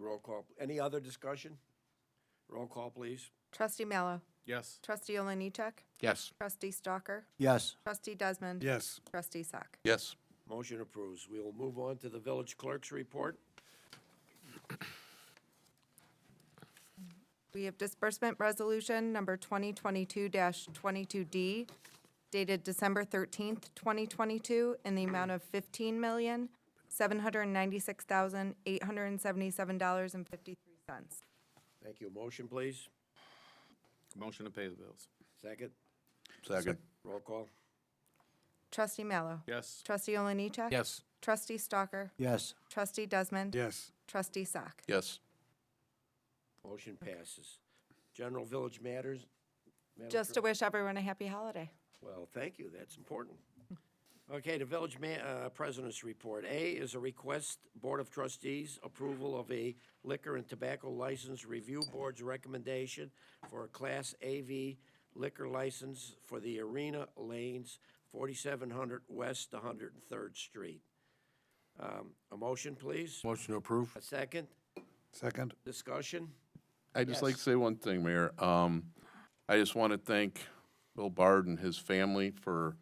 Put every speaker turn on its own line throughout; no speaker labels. Roll call. Any other discussion? Roll call, please.
Trustee Mallow.
Yes.
Trustee Oliniechek.
Yes.
Trustee Stalker.
Yes.
Trustee Desmond.
Yes.
Trustee Sack.
Yes.
Motion approves. We will move on to the village clerk's report.
We have disbursement resolution number 2022-22D dated December 13th, 2022, in the amount of $15,796,877.53.
Thank you. Motion, please.
Motion to pay the bills.
Second.
Second.
Roll call.
Trustee Mallow.
Yes.
Trustee Oliniechek.
Yes.
Trustee Stalker.
Yes.
Trustee Desmond.
Yes.
Trustee Sack.
Yes.
Motion passes. General village matters. Madam
Just to
Clerk?
wish everyone a happy holiday.
Well, thank you. That's important. Okay, the village ma- uh, president's report. A is a request, Board of Trustees, approval of a liquor and tobacco license review board's recommendation for a Class AV liquor license for the Arena Lanes, 4700 West 103rd Street. Um, A motion, please?
Motion to approve?
A second?
Second.
Discussion?
I'd just like to say one thing, Mayor. Um, I just want to thank Bill Bard and his family for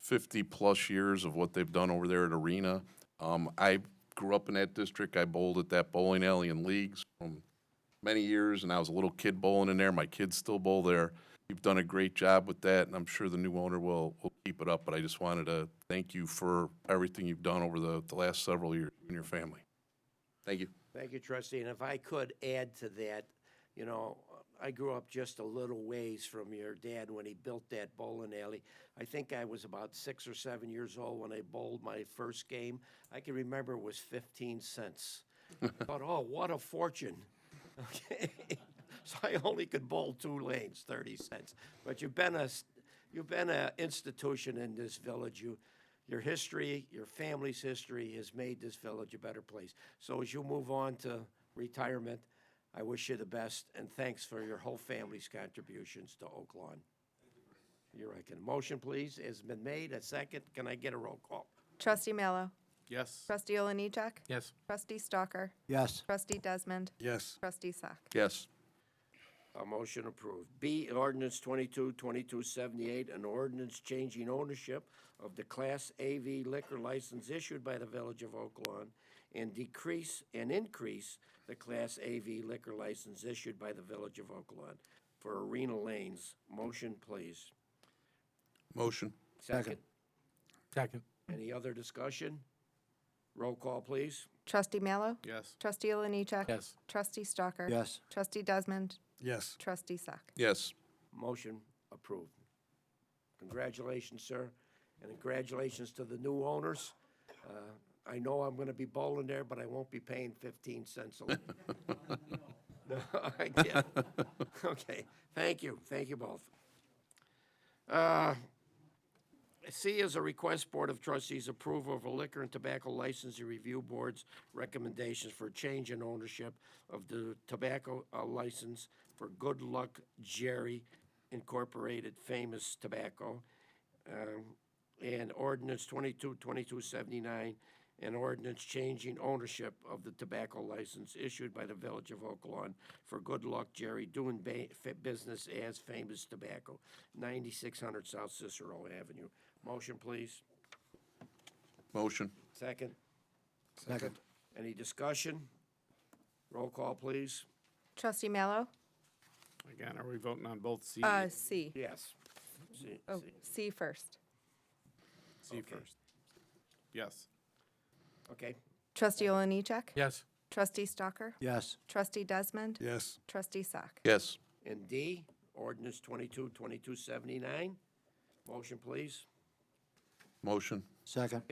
fifty-plus years of what they've done over there at Arena. Um, I grew up in that district. I bowled at that bowling alley in leagues from many years, and I was a little kid bowling in there. My kids still bowl there. You've done a great job with that, and I'm sure the new owner will, will keep it up. But I just wanted to thank you for everything you've done over the, the last several years, you and your family. Thank you.
Thank you, trustee, and if I could add to that, you know, I grew up just a little ways from your dad when he built that bowling alley. I think I was about six or seven years old when I bowled my first game. I can remember it was fifteen cents. But, oh, what a fortune. Okay, so I only could bowl two lanes, thirty cents. But you've been a, s- you've been a institution in this village. You, your history, your family's history has made this village a better place. So as you move on to retirement, I wish you the best and thanks for your whole family's contributions to Oak Lawn. You're recommended. Motion, please, has been made. A second. Can I get a roll call?
Trustee Mallow.
Yes.
Trustee Oliniechek.
Yes.
Trustee Stalker.
Yes.
Trustee Desmond.
Yes.
Trustee Sack.
Yes.
A motion approved. B, ordinance 22-2278, an ordinance changing ownership of the Class AV liquor license issued by the Village of Oak Lawn and decrease and increase the Class AV liquor license issued by the Village of Oak Lawn for Arena Lanes. Motion, please.
Motion.
Second.
Second.
Any other discussion? Roll call, please.
Trustee Mallow.
Yes.
Trustee Oliniechek.
Yes.
Trustee Stalker.
Yes.
Trustee Desmond.
Yes.
Trustee Sack.
Yes.
Motion approved. Congratulations, sir, and congratulations to the new owners. Uh, I know I'm gonna be bowling there, but I won't be paying fifteen cents a lane. No, I can't. Okay, thank you, thank you both. Uh, C is a request Board of Trustees approval of a liquor and tobacco licensing review board's recommendations for change in ownership of the tobacco uh, license for Good Luck Jerry Incorporated Famous Tobacco um, and ordinance 22, 2279, and ordinance changing ownership of the tobacco license issued by the Village of Oak Lawn for Good Luck Jerry doing ba- fa- business as Famous Tobacco, 9600 South Cicero Avenue. Motion, please.
Motion.
Second.
Second.
Any discussion? Roll call, please.
Trustee Mallow.
Again, are we voting on both C,
Uh, C.
Yes. See-
Oh,
see.
C first.
C first? Yes.
Okay,
Trustee Oliniechek.
Yes.
Trustee Stalker.
Yes.
Trustee Desmond.
Yes.
Trustee Sack.
Yes.
and D, ordinance 22, 2279. Motion, please.
Motion.
Second.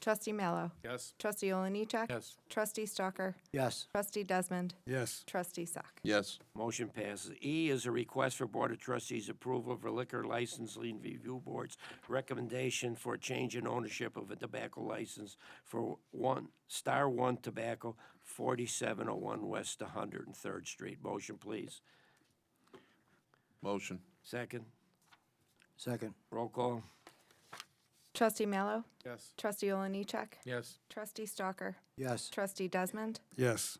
Trustee Mallow.
Yes.
Trustee Oliniechek.
Yes.
Trustee Stalker.
Yes.
Trustee Desmond.
Yes.
Trustee Sack.
Yes.
Motion passes. E is a request for Board of Trustees approval of a liquor licensing review board's recommendation for a change in ownership of a tobacco license for one, Star One Tobacco, forty-seven oh one West one hundred and third Street. Motion, please.
Motion.
Second,
Second.
roll call.
Trustee Mallow.
Yes.
Trustee Oliniechek.
Yes.
Trustee Stalker.
Yes.
Trustee Desmond.
Yes.